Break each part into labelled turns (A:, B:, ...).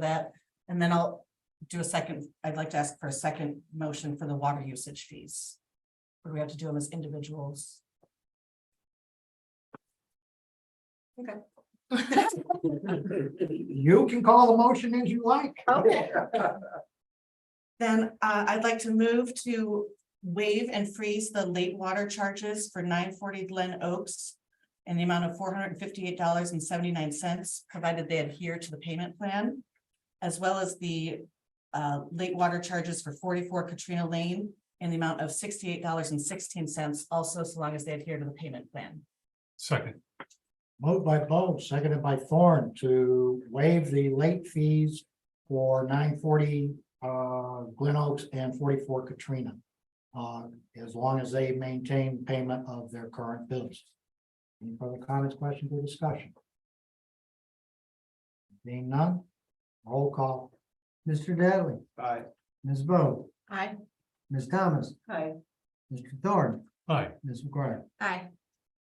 A: that, and then I'll do a second, I'd like to ask for a second motion for the water usage fees. Or do we have to do them as individuals?
B: You can call the motion as you like.
C: Okay.
A: Then uh, I'd like to move to waive and freeze the late water charges for nine forty Glen Oaks. In the amount of four hundred and fifty-eight dollars and seventy-nine cents, provided they adhere to the payment plan. As well as the uh, late water charges for forty-four Katrina Lane in the amount of sixty-eight dollars and sixteen cents, also so long as they adhere to the payment plan.
D: Second,
B: Moved by Bo, seconded by Thorne to waive the late fees for nine forty uh Glen Oaks and forty-four Katrina. Uh, as long as they maintain payment of their current bills. Any further comments, questions, or discussion? Being none, roll call. Mr. Dattley.
D: Aye.
B: Ms. Bo,
C: Aye.
B: Ms. Thomas,
C: Aye.
B: Mr. Thorne,
D: aye,
B: Ms. McGuire.
C: Aye.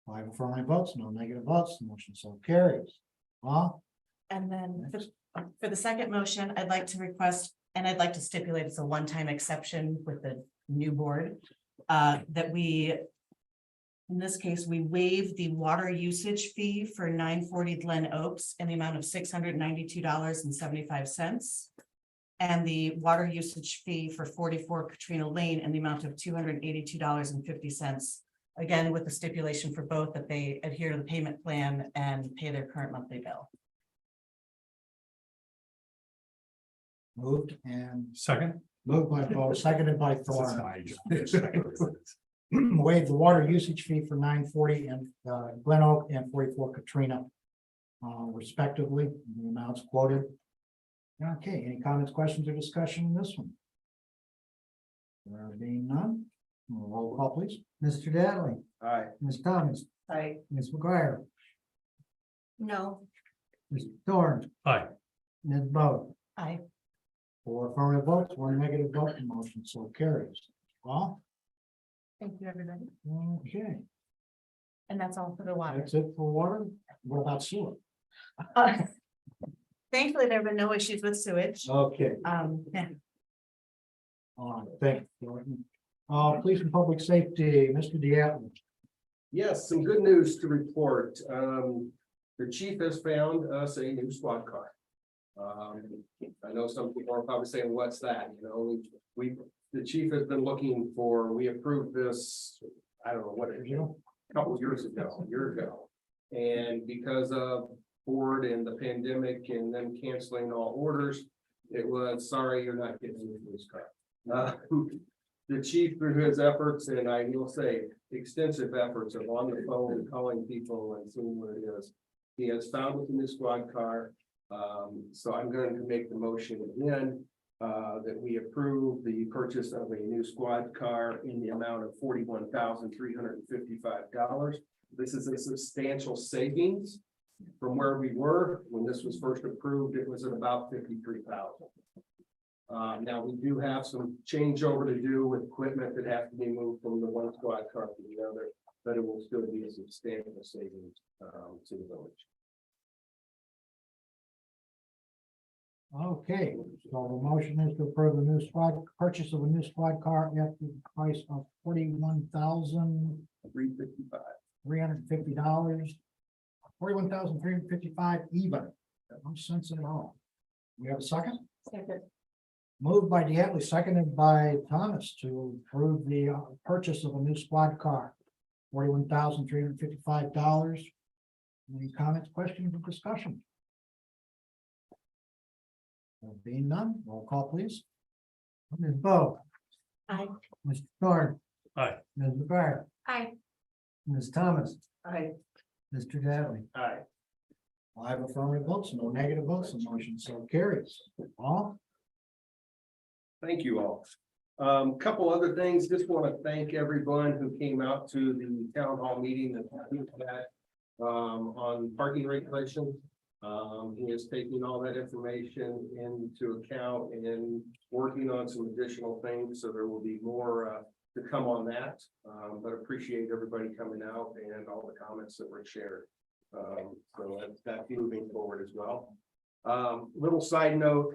B: Five affirmative votes, no negative votes, the motion so carries. Well,
A: And then for- for the second motion, I'd like to request, and I'd like to stipulate it's a one-time exception with the new board, uh, that we in this case, we waive the water usage fee for nine forty Glen Oaks in the amount of six hundred ninety-two dollars and seventy-five cents. And the water usage fee for forty-four Katrina Lane in the amount of two hundred eighty-two dollars and fifty cents. Again, with the stipulation for both that they adhere to the payment plan and pay their current monthly bill.
B: moved and
D: second.
B: moved by Bo, seconded by Thorne.
D: Aye.
B: Waive the water usage fee for nine forty and uh, Glen Oak and forty-four Katrina. Uh, respectively, the amounts quoted. Okay, any comments, questions, or discussion on this one? There being none, roll call please. Mr. Dattley, Ms. Thomas,
A: Right.
B: Ms. McGuire,
C: No.
B: Mr. Thorne,
D: Aye,
B: Ms. Bo.
A: Aye.
B: Four affirmative votes, one negative vote, the motion so carries. Well,
C: Thank you, everybody.
B: okay,
A: And that's all for the water.
B: that's it for water. What about sewer?
C: Uh, Thankfully, there have been no issues with sewage.
B: Okay.
A: Um, yeah,
B: All right, thank you, Jordan. Uh, Police and Public Safety, Mr. Diatlin.
E: Yes, some good news to report. Um, the chief has found us a new squad car. Um, I know some people are probably saying, what's that? You know, we, the chief has been looking for, we approved this, I don't know, what,
B: you know?
E: a couple of years ago, a year ago. And because of board and the pandemic and them canceling all orders, it was, sorry, you're not getting a police car. Uh, The chief, through his efforts, and I will say extensive efforts of on the phone, calling people and seeing where it is. He has found with the new squad car, um, so I'm going to make the motion again. Uh, that we approve the purchase of a new squad car in the amount of forty-one thousand three hundred and fifty-five dollars. This is a substantial savings from where we were when this was first approved. It was at about fifty-three thousand. Uh, now we do have some changeover to do with equipment that has to be moved from the one squad car to the other, but it will still be a substantial savings, um, to the village.
B: Okay, so the motion is to approve the new squad, purchase of a new squad car at the price of forty-one thousand
E: Three fifty-five.
B: three hundred and fifty dollars. Forty-one thousand three hundred and fifty-five even, no sense at all. We have a second?
C: Second.
B: Moved by Diatley, seconded by Thomas to approve the uh, purchase of a new squad car. Forty-one thousand three hundred fifty-five dollars. Any comments, questions, or discussion? There Being none, roll call please. Ms. Bo.
C: Aye.
B: Mr. Thorne.
D: Aye.
B: Ms. McGuire.
C: Aye.
B: Ms. Thomas.
C: Aye.
B: Mr. Dattley.
E: Aye.
B: Five affirmative votes, no negative votes, the motion so carries. Paul?
E: Thank you all. Um, couple other things, just want to thank everyone who came out to the town hall meeting that we had, um, on parking regulations. Um, he is taking all that information into account and working on some additional things, so there will be more, uh, to come on that. Um, but appreciate everybody coming out and all the comments that were shared. Um, so that- that's moving forward as well. Um, Um, little side note,